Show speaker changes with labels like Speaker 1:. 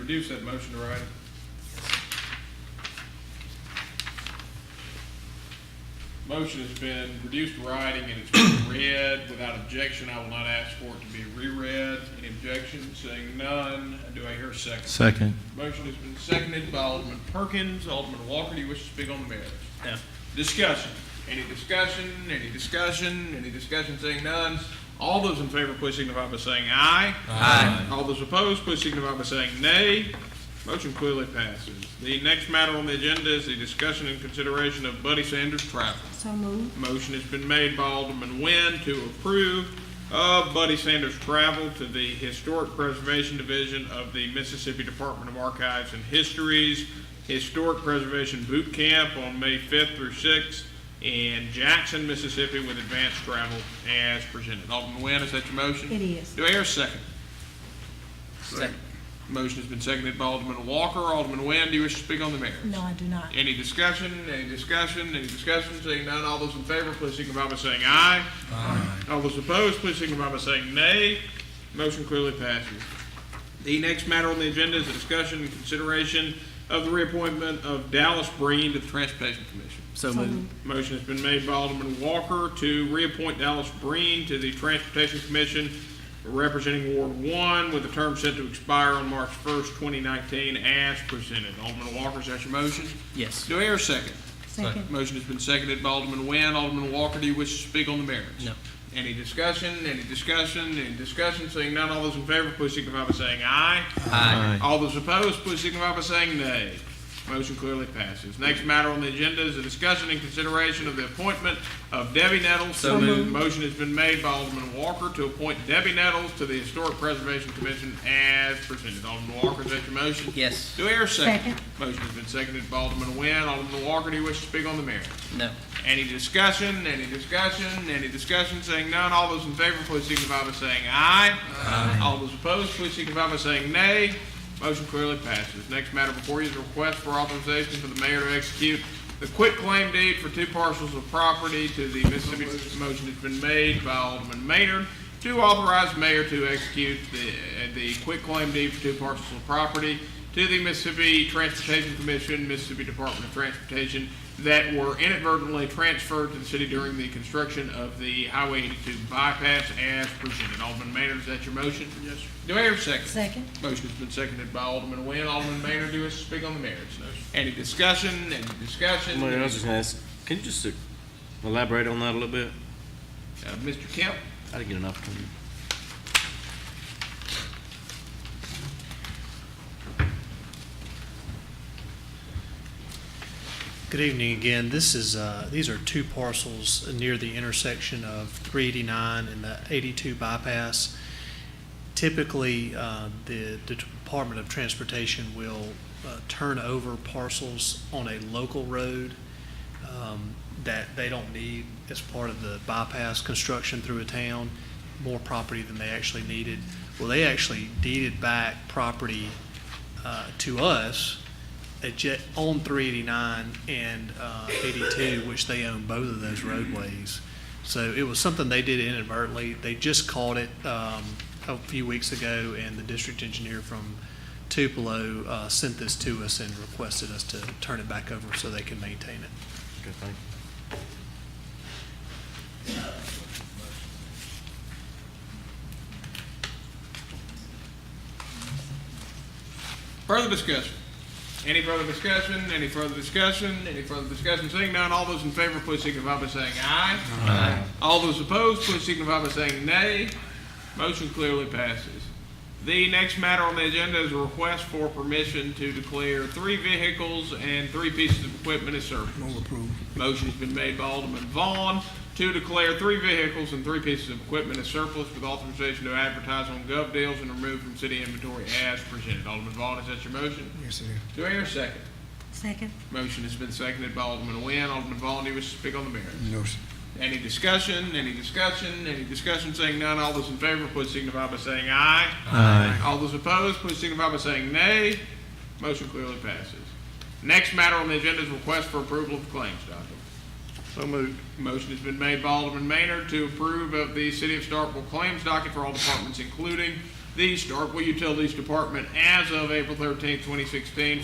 Speaker 1: reduce that motion to writing. Motion has been reduced to writing and it's been read without objection. I will not ask for it to be reread. Any objection? Seeing none. Do I hear a second?
Speaker 2: Second.
Speaker 1: Motion has been seconded by Alderman Perkins. Alderman Walker, do you wish to speak on the merits?
Speaker 3: No.
Speaker 1: Discussion. Any discussion? Any discussion? Any discussion? Seeing none. All those in favor, please signify by saying aye. Aye. All those opposed, please signify by saying nay. Motion clearly passes. The next matter on the agenda is the discussion and consideration of Buddy Sanders travel.
Speaker 4: So moved.
Speaker 1: Motion has been made by Alderman Nguyen to approve of Buddy Sanders' travel to the Historic Preservation Division of the Mississippi Department of Archives and Histories Historic Preservation Boot Camp on May 5th through 6th in Jackson, Mississippi with advanced travel as presented. Alderman Nguyen, is that your motion?
Speaker 4: It is.
Speaker 1: Do I hear a second? Second. Motion has been seconded by Alderman Walker. Alderman Nguyen, do you wish to speak on the merits?
Speaker 4: No, I do not.
Speaker 1: Any discussion, any discussion, any discussion, seeing none, all those in favor, please signify by saying aye. Aye. All those opposed, please signify by saying nay. Motion clearly passes. The next matter on the agenda is a discussion and consideration of the reappointment of Dallas Breen to the Transportation Commission.
Speaker 3: So
Speaker 1: Motion has been made by Alderman Walker to reappoint Dallas Breen to the Transportation Commission representing Ward One with a term set to expire on March first, twenty nineteen, as presented. Alderman Walker, is that your motion?
Speaker 3: Yes.
Speaker 1: Do I hear a second?
Speaker 4: Second.
Speaker 1: Motion has been seconded by Alderman Nguyen. Alderman Walker, do you wish to speak on the merits?
Speaker 3: No.
Speaker 1: Any discussion, any discussion, any discussion? Seeing none, all those in favor, please signify by saying aye.
Speaker 2: Aye.
Speaker 1: All those opposed, please signify by saying nay. Motion clearly passes. Next matter on the agenda is a discussion and consideration of the appointment of Debbie Nettles.
Speaker 3: So moved.
Speaker 1: Motion has been made by Alderman Walker to appoint Debbie Nettles to the Historic Preservation Commission as presented. Alderman Walker, is that your motion?
Speaker 3: Yes.
Speaker 1: Do I hear a second?
Speaker 4: Second.
Speaker 1: Motion has been seconded by Alderman Nguyen. Alderman Walker, do you wish to speak on the matter?
Speaker 3: No.
Speaker 1: Any discussion, any discussion, any discussion, saying none, all those in favor, please signify by saying aye. Aye. All those opposed, please signify by saying nay. Motion clearly passes. Next matter before you is a request for authorization for the mayor to execute the quit claim deed for two parcels of property to the Mississippi. Motion has been made by Alderman Maynard to authorize mayor to execute the, the quit claim deed for two parcels of property to the Mississippi Transportation Commission, Mississippi Department of Transportation, that were inadvertently transferred to the city during the construction of the Highway 82 bypass as presented. Alderman Maynard, is that your motion? Yes. Do I hear a second?
Speaker 4: Second.
Speaker 1: Motion has been seconded by Alderman Nguyen. Alderman Maynard, do us speak on the merits. Any discussion, any discussion? Uh,
Speaker 5: Mayor, I was just gonna ask, can you just uh, elaborate on that a little bit?
Speaker 1: Uh, Mr. Kemp?
Speaker 5: I didn't get an opportunity.
Speaker 6: Good evening again. This is, uh, these are two parcels near the intersection of 389 and the 82 bypass. Typically, uh, the the Department of Transportation will uh, turn over parcels on a local road um, that they don't need as part of the bypass construction through a town, more property than they actually needed. Well, they actually deeded back property uh, to us at Je- on 389 and uh, 82, which they own both of those roadways. So it was something they did inadvertently. They just caught it um, a few weeks ago, and the district engineer from Tupelo uh, sent this to us and requested us to turn it back over so they can maintain it.
Speaker 5: Good thing.
Speaker 1: Further discussion? Any further discussion? Any further discussion? Any further discussion? Seeing none, all those in favor, please signify by saying aye. Aye. All those opposed, please signify by saying nay. Motion clearly passes. The next matter on the agenda is a request for permission to declare three vehicles and three pieces of equipment as surplus. Motion's been made by Alderman Vaughn to declare three vehicles and three pieces of equipment as surplus with authorization to advertise on gov deals and remove from city inventory as presented. Alderman Vaughn, is that your motion? Yes, sir. Do I hear a second?
Speaker 4: Second.
Speaker 1: Motion has been seconded by Alderman Nguyen. Alderman Vaughn, do you wish to speak on the merits?
Speaker 7: No, sir.
Speaker 1: Any discussion, any discussion, any discussion, saying none, all those in favor, please signify by saying aye. Aye. All those opposed, please signify by saying nay. Motion clearly passes. Next matter on the agenda is request for approval of claims document. So moved. Motion has been made by Alderman Maynard to approve of the City of Starkville claims docket for all departments, including the Starkville Utilities Department as of April thirteenth, twenty sixteen,